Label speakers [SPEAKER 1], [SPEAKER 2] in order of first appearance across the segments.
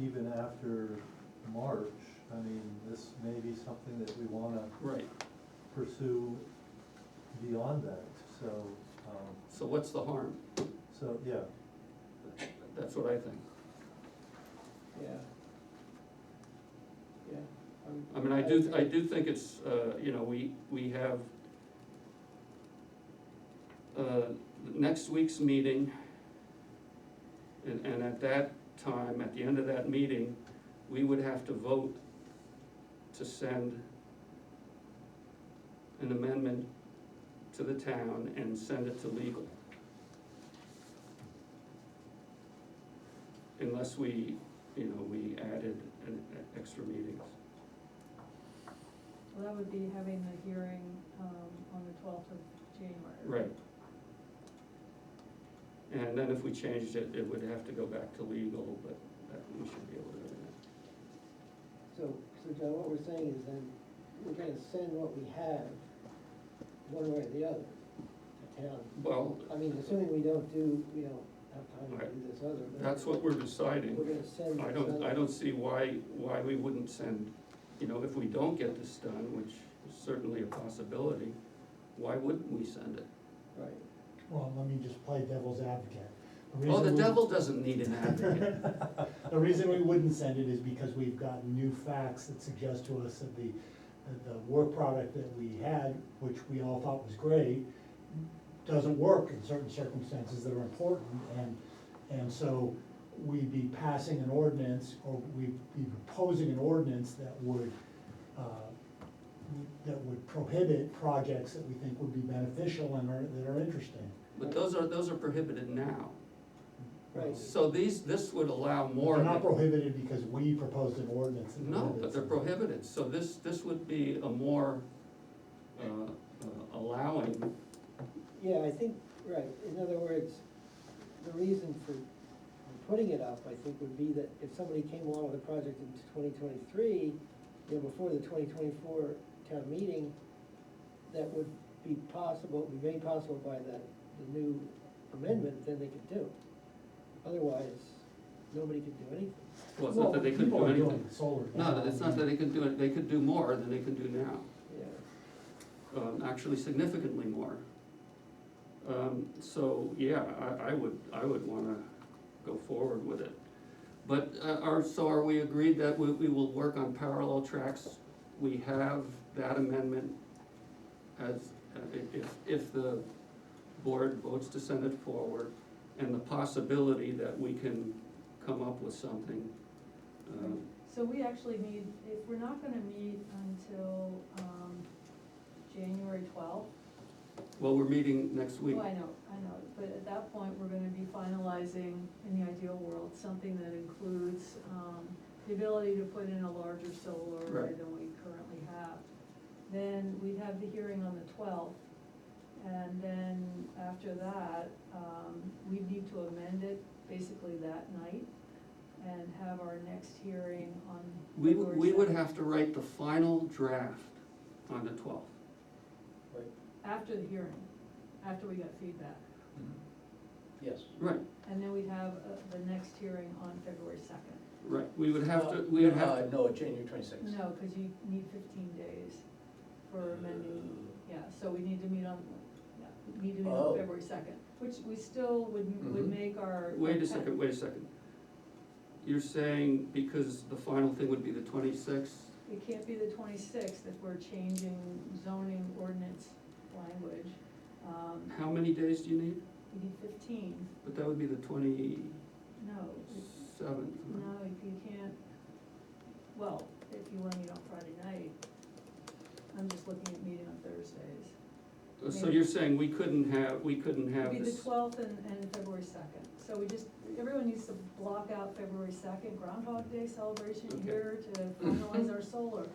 [SPEAKER 1] even after March, I mean, this may be something that we wanna
[SPEAKER 2] Right,
[SPEAKER 1] pursue beyond that, so, um,
[SPEAKER 2] so what's the harm?
[SPEAKER 1] so, yeah.
[SPEAKER 2] That's what I think.
[SPEAKER 3] Yeah. Yeah. I'm-
[SPEAKER 2] I mean, I do, I do think it's, uh, you know, we, we have, uh, next week's meeting, and, and at that time, at the end of that meeting, we would have to vote to send an amendment to the town and send it to legal. Unless we, you know, we added an extra meetings.
[SPEAKER 4] Well, that would be having the hearing, um, on the twelfth of January.
[SPEAKER 2] Right. And then if we changed it, it would have to go back to legal, but that, we should be able to do that.
[SPEAKER 3] So, so John, what we're saying is then, we're gonna send what we have, one way or the other, to town.
[SPEAKER 2] Well,
[SPEAKER 3] I mean, assuming we don't do, we don't have time to do this other, but.
[SPEAKER 2] that's what we're
[SPEAKER 3] We're
[SPEAKER 2] deciding.
[SPEAKER 3] gonna send.
[SPEAKER 2] I
[SPEAKER 3] this
[SPEAKER 2] don't,
[SPEAKER 3] other-
[SPEAKER 2] I don't see why, why we wouldn't send, you know, if we don't get this done, which is certainly a possibility, why wouldn't we send it?
[SPEAKER 3] Right.
[SPEAKER 5] Well, let me just play devil's advocate.
[SPEAKER 2] Oh, the
[SPEAKER 5] reason we-
[SPEAKER 2] devil doesn't need an advocate.
[SPEAKER 5] The reason we wouldn't send it is because we've gotten new facts that suggest to us that the, that the work product that we had, which we all thought was great, doesn't work in certain circumstances that are important, and, and so we'd be passing an ordinance, or we'd be proposing an ordinance that would, uh, that would prohibit projects that we think would be beneficial and are, that are interesting.
[SPEAKER 2] But those are, those are prohibited now.
[SPEAKER 3] Right.
[SPEAKER 2] So these, this would allow more
[SPEAKER 5] They're
[SPEAKER 2] of
[SPEAKER 5] not
[SPEAKER 2] it.
[SPEAKER 5] prohibited because we proposed an ordinance. that
[SPEAKER 2] No, but they're prohibited,
[SPEAKER 5] prohibits
[SPEAKER 2] so this, this would be a more, uh, uh, allowing,
[SPEAKER 3] Yeah, I think, right, in other words, the reason for for putting it up, I think, would be that if somebody came along with a project in twenty twenty-three, you know, before the twenty twenty-four town meeting, that would be possible, be made possible by the, the new amendment, then they could do. it. Otherwise, nobody could do anything.
[SPEAKER 2] well, it's
[SPEAKER 5] it.
[SPEAKER 2] not that they couldn't
[SPEAKER 5] Well,
[SPEAKER 2] do
[SPEAKER 5] people are
[SPEAKER 2] anything.
[SPEAKER 5] doing solar
[SPEAKER 2] No,
[SPEAKER 5] now.
[SPEAKER 2] it's not that they could do it, they could do more than they can do now,
[SPEAKER 3] Yeah,
[SPEAKER 2] um, actually significantly more. Um, so, yeah, I, I would, I would wanna go forward with it. But, uh, are, so are we agreed that we, we will work on parallel tracks? We have that amendment as, uh, i- if, if the board votes to send it forward, and the possibility that we can come up with something. um,
[SPEAKER 4] So we actually need, if we're not gonna meet until, um, January twelfth,
[SPEAKER 2] Well, we're meeting next week.
[SPEAKER 4] well, I know, I know, but at that point, we're gonna be finalizing, in the ideal world, something that includes, um, the ability to put in a larger solar array
[SPEAKER 2] Right.
[SPEAKER 4] than we currently have. Then we'd have the hearing on the twelfth, and then after that, um, we'd need to amend it basically that night and have our next hearing on
[SPEAKER 2] We, would- we would
[SPEAKER 4] February
[SPEAKER 2] have to write the final draft on the twelfth.
[SPEAKER 3] right,
[SPEAKER 4] 7th, After the hearing, after we got feedback,
[SPEAKER 3] yes.
[SPEAKER 2] Right,
[SPEAKER 4] and then we'd have uh, the next hearing on February second.
[SPEAKER 2] right, we would have to, we would have to.
[SPEAKER 6] Uh, No, January twenty-sixth.
[SPEAKER 4] No, because you need fifteen days
[SPEAKER 2] Uh,
[SPEAKER 4] for amending, yeah, so we need to meet on, yeah, we need to meet on
[SPEAKER 6] Oh.
[SPEAKER 4] February second, which we still would, would
[SPEAKER 6] Mhm.
[SPEAKER 4] make our.
[SPEAKER 2] Mm-hmm. Wait a second, wait a second. You're saying because the final thing would be the twenty-sixth?
[SPEAKER 4] It can't be the twenty-sixth if we're changing zoning ordinance language, um,
[SPEAKER 2] How many days do you need?
[SPEAKER 4] you need fifteen,
[SPEAKER 2] But that would be the twenty-seventh.
[SPEAKER 4] no, it-
[SPEAKER 2] Mm-hmm.
[SPEAKER 4] no, if you can't, well, if you wanna meet on Friday night, I'm just looking at meeting on Thursdays.
[SPEAKER 2] Uh, So you're saying we couldn't have, we couldn't have
[SPEAKER 4] It'd be the
[SPEAKER 2] this,
[SPEAKER 4] twelfth and, and February second, so we just, everyone needs to block out February second, Groundhog Day celebration
[SPEAKER 2] Okay.
[SPEAKER 4] here to finalize our solar.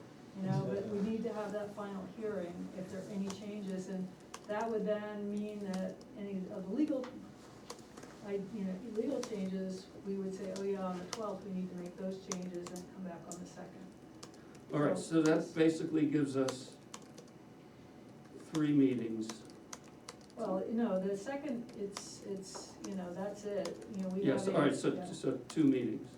[SPEAKER 4] You know, but we need to have that final hearing if there are any changes, and that would then mean that any of the legal, like, you know, legal changes, we would say, oh yeah, on the twelfth, we need to make those changes and come back on the second.
[SPEAKER 2] all right, so that basically gives us three meetings.
[SPEAKER 4] Well, you know, the second, it's, it's, you know, that's it, you know, we have.
[SPEAKER 2] Yes, all right, so,
[SPEAKER 4] yeah.
[SPEAKER 2] so two meetings.